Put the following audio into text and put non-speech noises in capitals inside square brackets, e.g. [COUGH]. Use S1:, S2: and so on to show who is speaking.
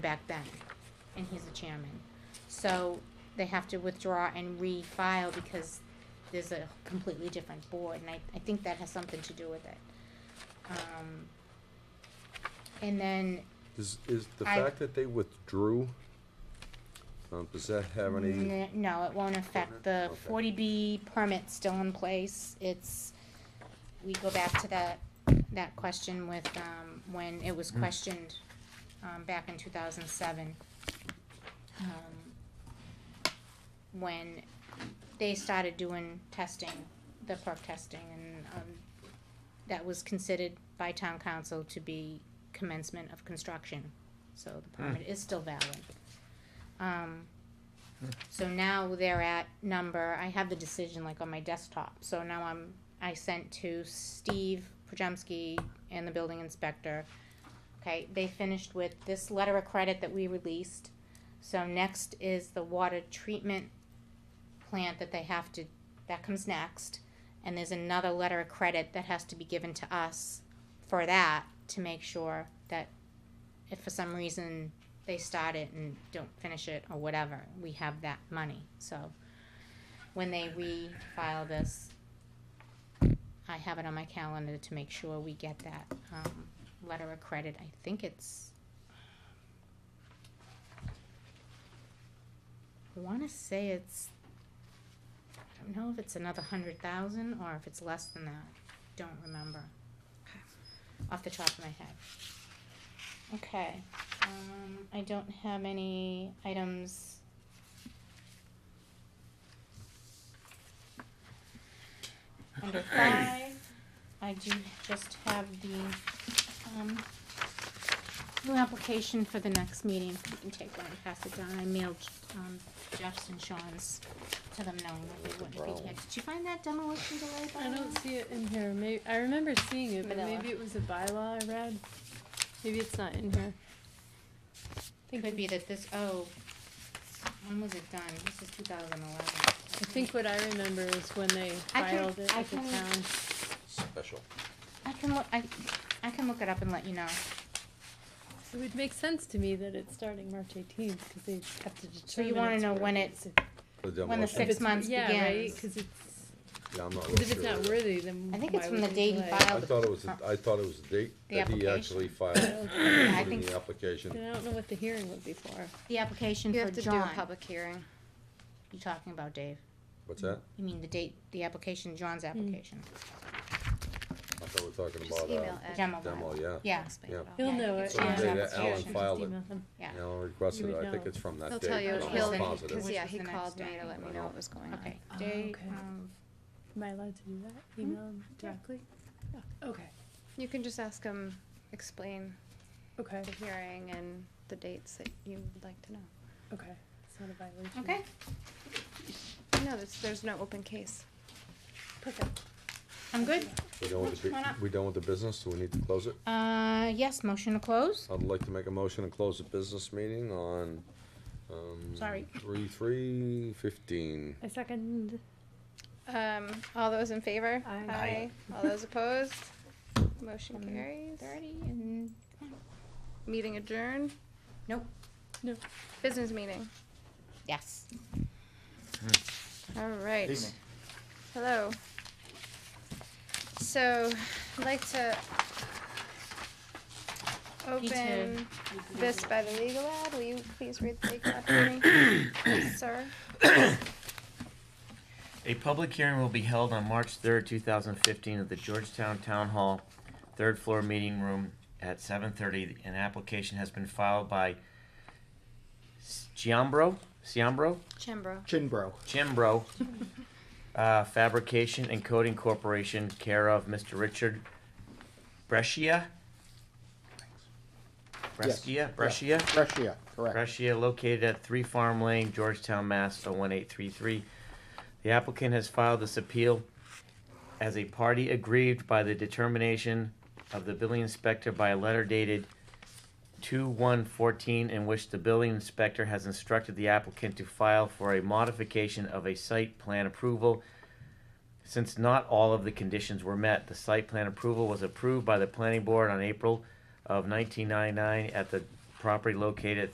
S1: back then, and he's the chairman. So they have to withdraw and refile because there's a completely different board, and I, I think that has something to do with it. Um, and then,
S2: Is, is the
S1: I-
S2: fact that they withdrew, um, does that have any,
S1: n- no, it won't affect, the
S2: Okay.
S1: forty B permit's still in place, it's, we go back to that, that question with, um, when it was questioned, um, back in two thousand seven. Um, When they started doing testing, the perk testing, and, um, that was considered by town council to be commencement of construction, so the permit is still valid. Um, so now they're at number, I have the decision like on my desktop, so now I'm, I sent to Steve Pajemski and the building inspector. Okay, they finished with this letter of credit that we released, so next is the water treatment plant that they have to, that comes next. And there's another letter of credit that has to be given to us for that, to make sure that if for some reason they start it and don't finish it or whatever, we have that money, so. When they refile this, I have it on my calendar to make sure we get that, um, letter of credit, I think it's. I wanna say it's, I don't know if it's another hundred thousand or if it's less than that, don't remember. Off the top of my head. Okay. Um, I don't have any items. Under five, I do just have the, um, new application for the next meeting. You can take one and pass it down. I mailed, um, Jeff's and Sean's to them knowing that they wouldn't be here. Did you find that demolition delay by
S3: I
S1: any
S3: don't see it in here. May I remember seeing it, but
S1: Vanilla.
S3: maybe it was a bylaw I read. Maybe it's not in here.
S1: It could be that this, oh, when was it done? This is two thousand eleven.
S3: I think what I remember is when they
S1: I can-
S3: filed it
S1: I
S3: at the
S1: can-
S3: town.
S2: special?
S1: I can look, I, I can look it up and let you know.
S3: It would make sense to me that it's starting March eighteenth, cause they have to determine.
S1: you wanna
S3: it's
S1: know
S3: worth
S1: when
S3: it.
S1: it's-
S3: So-
S2: The
S1: When the
S2: demolition?
S1: six
S3: it's-
S1: months
S3: Yeah, right,
S1: begins.
S3: cause it's,
S2: Yeah, I'm not real
S3: cause if it's
S2: sure.
S3: not worthy, then
S1: I think
S3: why
S1: it's from
S3: would
S1: the
S3: we
S1: date he
S3: delay?
S1: filed.
S2: I thought it was, a- I thought it was the date
S1: The
S2: that he
S1: application. [CLEARS THROAT]
S2: actually filed,
S3: Okay.
S1: Yeah, I
S2: put
S1: think
S2: in
S1: so.
S2: the
S3: Then
S2: application.
S3: I don't know what the hearing would be for.
S1: The application
S4: You
S1: for
S4: have to do a
S1: John,
S4: public hearing.
S1: you talking about, Dave?
S2: What's that?
S1: You mean the date, the application,
S4: Hmm.
S1: John's application,
S2: I thought we were talking
S4: Just
S2: about,
S4: email
S2: uh,
S4: Ed.
S1: demo.
S2: demo, yeah.
S1: Yeah,
S4: Explain it
S2: yeah.
S4: all.
S3: He'll
S1: Yeah,
S3: know
S1: you
S3: it.
S1: So the
S3: yeah.
S1: day that
S3: It's
S1: Alan
S3: just
S2: filed it.
S3: email him.
S1: yeah.
S2: Alan requested
S3: You
S2: it,
S3: would
S2: I think
S3: know.
S2: it's from
S4: He'll
S2: that
S4: tell
S2: date,
S4: you,
S2: I'm
S1: Date,
S4: he'll,
S1: no,
S2: not
S1: no.
S2: positive.
S4: because yeah,
S1: Which
S4: he
S1: was the next
S4: called me
S1: day.
S4: to let me know what was going on.
S1: Uh, Okay,
S3: Oh,
S1: day
S3: okay.
S1: of,
S3: Am I allowed to do that? Email him directly? Okay,
S4: You can just ask him, explain
S3: okay,
S4: the hearing and the dates that you would like to know.
S3: okay. It's not a violation.
S1: okay,
S4: No, there's, there's no open case.
S3: Perfect.
S1: I'm good.
S2: We don't want
S1: Why
S2: to,
S1: not?
S2: we don't want the business, do we need to close it?
S1: Uh, yes, motion to close?
S2: I'd like to make a motion to close the business meeting on, um.
S1: Sorry.
S2: Three, three, fifteen.
S3: I second.
S4: Um, all those in favor?
S3: Aye.
S4: All
S2: [LAUGHS]
S4: those opposed? Motion
S1: Um,
S4: carries.
S1: Thirty and,
S4: Meeting adjourned.
S1: nope,
S4: Business meeting.
S1: yes.
S4: All right. Hello. So, I'd like to
S1: Me too.
S4: open this by the legal ad. Will you please read the legal ad for me, sir?
S5: A public hearing will be held on March third, two thousand fifteen, at the Georgetown Town Hall, third floor meeting room at seven thirty. An application has been filed by Ciambro, Ciambro,
S4: Chimbro.
S6: Chinbro.
S5: Chimbro, uh, Fabrication and Coating Corporation, care of Mr. Richard Brescia?
S6: Yes.
S5: Brescia, Brescia?
S6: Russia, correct.
S5: Russia, located at Three Farm Lane, Georgetown, Mass. 01833. The applicant has filed this appeal as a party aggrieved by the determination of the building inspector by a letter dated 2/1/14 in which the building inspector has instructed the applicant to file for a modification of a site plan approval since not all of the conditions were met. The site plan approval was approved by the planning board on April of 1999 at the property located at